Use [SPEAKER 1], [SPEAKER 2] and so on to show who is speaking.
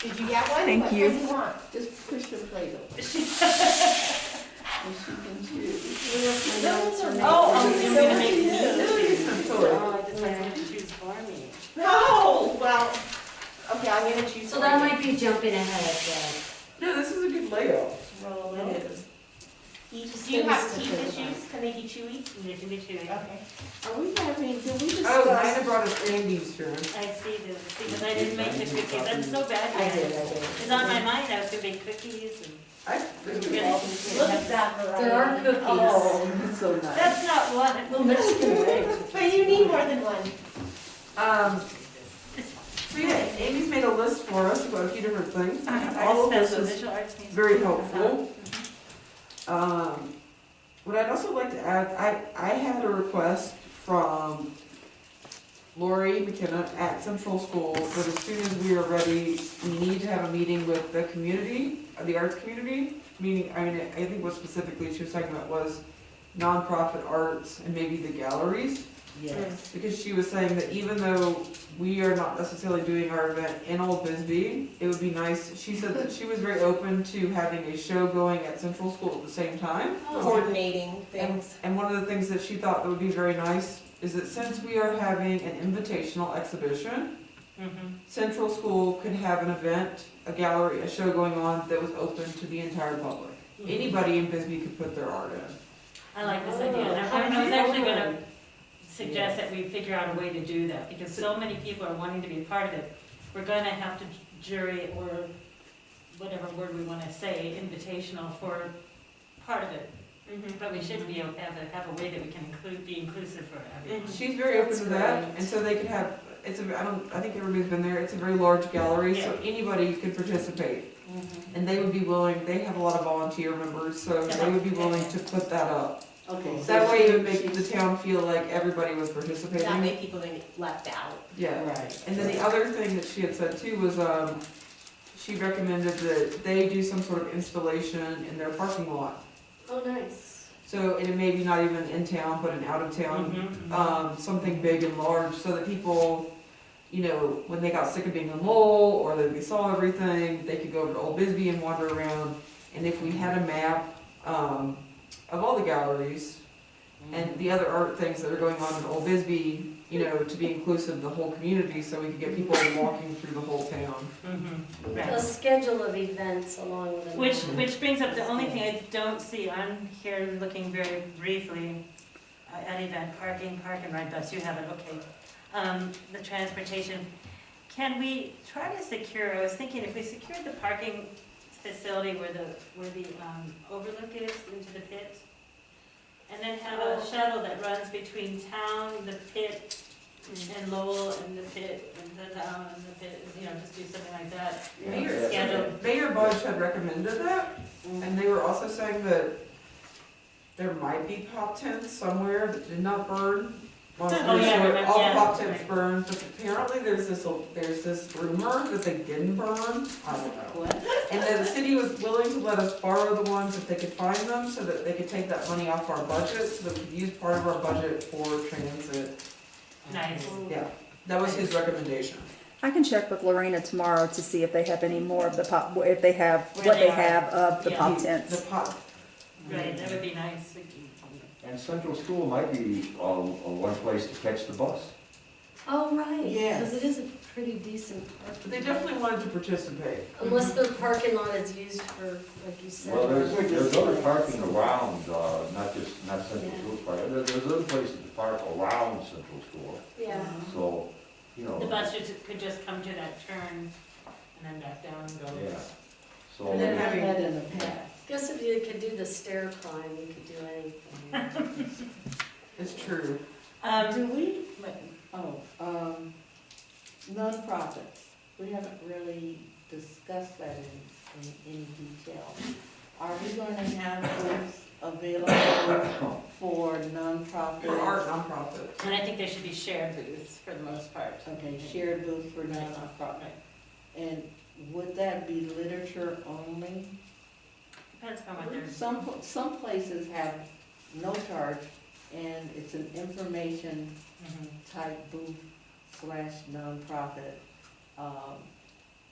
[SPEAKER 1] Did you get one?
[SPEAKER 2] Thank
[SPEAKER 1] What
[SPEAKER 2] you.
[SPEAKER 1] kind you want?
[SPEAKER 3] Just push the plate over. And she can choose.
[SPEAKER 1] Those are-
[SPEAKER 3] Oh,
[SPEAKER 1] oh,
[SPEAKER 3] I'm
[SPEAKER 1] so
[SPEAKER 3] gonna make
[SPEAKER 1] cute.
[SPEAKER 3] these.
[SPEAKER 1] Those are some food.
[SPEAKER 4] Oh, I just have to choose for me.
[SPEAKER 1] No, well, okay, I'm gonna choose.
[SPEAKER 4] So that
[SPEAKER 1] one.
[SPEAKER 4] might be jumping ahead,
[SPEAKER 3] No, this is a good layout.
[SPEAKER 1] Roll it in. He- Do
[SPEAKER 3] gave
[SPEAKER 1] you
[SPEAKER 3] us
[SPEAKER 1] have
[SPEAKER 3] the
[SPEAKER 1] teeth
[SPEAKER 3] good
[SPEAKER 1] issues? Can they be chewy?
[SPEAKER 4] but they can be chewy.
[SPEAKER 1] Okay.
[SPEAKER 3] Are we having, did we
[SPEAKER 5] Oh, Nina
[SPEAKER 3] discuss?
[SPEAKER 5] brought us Andy's turn.
[SPEAKER 4] I see this, because I didn't make the cookies, I'm so bad at it. It's on my mind, I was gonna make cookies and.
[SPEAKER 5] I,
[SPEAKER 1] Look at that variety.
[SPEAKER 4] There are cookies.
[SPEAKER 3] Oh, it's so nice.
[SPEAKER 4] That's not one. Well, Michigan
[SPEAKER 1] But you need more than one.
[SPEAKER 5] um, so yeah, Andy's made a list for us about a few different things.
[SPEAKER 6] Uh-huh.
[SPEAKER 5] All of this is
[SPEAKER 4] Visual arts means.
[SPEAKER 5] very helpful. Um, what I'd also like to add, I, I had a request from Lori McKenna at Central School that as soon as we are ready, we need to have a meeting with the community, uh, the arts community. Meaning, I mean, I think what specifically she was talking about was nonprofit arts and maybe the galleries.
[SPEAKER 1] Hmm.
[SPEAKER 4] Yes.
[SPEAKER 5] Because she was saying that even though we are not necessarily doing our event in Old Bisbee, it would be nice, she said that she was very open to having a show going at Central School at the same time.
[SPEAKER 4] Oh.
[SPEAKER 1] Coordinating
[SPEAKER 5] And, and one of the things that she thought that would be very nice is that since we are having an invitational exhibition,
[SPEAKER 4] Mhm.
[SPEAKER 5] Central School could have an event, a gallery, a show going on that was open to the entire public.
[SPEAKER 4] Mm-hmm.
[SPEAKER 5] Anybody in Bisbee could put their art in.
[SPEAKER 4] I like this idea, and I'm- I was actually gonna suggest that we figure out a way to do that, because so many people are wanting to be a part of it. We're gonna have to jury or whatever word we wanna say, invitational for part of it. Mm-hmm, But we should be, able to have a, have a way that we can include, be inclusive for everyone.
[SPEAKER 5] She's very open to that,
[SPEAKER 1] That's
[SPEAKER 5] and so they could have, it's a, I don't, I think everybody's been there, it's a very large gallery, so anybody could participate. And they would be willing, they have a lot of volunteer members, so they would be willing to put that up.
[SPEAKER 3] Okay.
[SPEAKER 5] That way it would make the town feel like everybody was participating.
[SPEAKER 1] That way people don't get left out.
[SPEAKER 5] Yeah.
[SPEAKER 3] Right.
[SPEAKER 5] And then the other thing that she had said too was, um, she recommended that they do some sort of installation in their parking lot.
[SPEAKER 1] Oh, nice.
[SPEAKER 5] So, and it may be not even in town, but an out of town,
[SPEAKER 4] Mhm.
[SPEAKER 5] um, something big and large, so that people, you know, when they got sick of being in Lowell, or that they saw everything, they could go over to Old Bisbee and wander around. And if we had a map, um, of all the galleries and the other art things that are going on in Old Bisbee, you know, to be inclusive of the whole community, so we could get people walking through the whole town.
[SPEAKER 4] Mhm. Right.
[SPEAKER 6] A schedule of events along with it.
[SPEAKER 4] Which, which brings up the only thing I don't see, I'm here looking very briefly uh, at event parking, park and ride bus, you have it, okay. Um, the transportation, can we try to secure, I was thinking if we secured the parking facility where the, where the um, overlook is into the pit, and then have a shuttle that runs between town, the pit, and Lowell, and the pit, and the town, and the pit, you know, just do something like that.
[SPEAKER 5] Mayor,
[SPEAKER 4] Schedule.
[SPEAKER 5] Mayor Budge had recommended that, and they were also saying that there might be pop tents somewhere that did not burn. Well,
[SPEAKER 4] Oh, yeah,
[SPEAKER 5] sure,
[SPEAKER 4] remember-
[SPEAKER 5] All
[SPEAKER 4] yeah,
[SPEAKER 5] pop tents
[SPEAKER 4] right.
[SPEAKER 5] burned, but apparently there's this, there's this rumor that they didn't burn, I don't know. And that the city was willing to let us borrow the ones if they could find them, so that they could take that money off our budget, so that we could use part of our budget for transit.
[SPEAKER 4] Nice.
[SPEAKER 5] Yeah, that was his recommendation.
[SPEAKER 2] I can check with Lorena tomorrow to see if they have any more of the pop, if they have,
[SPEAKER 4] Where
[SPEAKER 2] what
[SPEAKER 4] they
[SPEAKER 2] they
[SPEAKER 4] are.
[SPEAKER 2] have of the
[SPEAKER 4] Yeah.
[SPEAKER 2] pop
[SPEAKER 5] The
[SPEAKER 2] tents.
[SPEAKER 5] pop,
[SPEAKER 4] Right, that would be nice.
[SPEAKER 7] And Central School might be uh, uh, one place to catch the bus.
[SPEAKER 6] Oh, right.
[SPEAKER 5] Yeah.
[SPEAKER 6] Because it is a pretty decent parking.
[SPEAKER 5] but they
[SPEAKER 6] lot.
[SPEAKER 5] definitely wanted to participate.
[SPEAKER 6] Unless the parking lot is used for, like you said.
[SPEAKER 7] Well, there's, there's other parking around, uh, not just, not Central
[SPEAKER 6] Yeah.
[SPEAKER 7] School Park, There- there's other places to park around Central School,
[SPEAKER 6] Yeah.
[SPEAKER 7] so, you know.
[SPEAKER 4] The bus should- could just come to that turn and then back down and go.
[SPEAKER 7] Yeah, so,
[SPEAKER 3] And then
[SPEAKER 7] yeah,
[SPEAKER 3] having that in the past.
[SPEAKER 4] Yeah.
[SPEAKER 6] Guess if you could do the stair climb, you could do anything.
[SPEAKER 5] It's true.
[SPEAKER 4] Um,
[SPEAKER 3] Do we, oh, um, nonprofits, we haven't really discussed that in, in any detail. Are we gonna have those available for
[SPEAKER 5] For art
[SPEAKER 3] nonprofits?
[SPEAKER 5] nonprofits.
[SPEAKER 4] and I think there should be shared booths for the most part.
[SPEAKER 3] Okay, shared booth for nonprofit. And would that be literature only?
[SPEAKER 4] Depends upon what there's.
[SPEAKER 3] Some, pl- some places have no charge, and it's an information type booth slash nonprofit, um,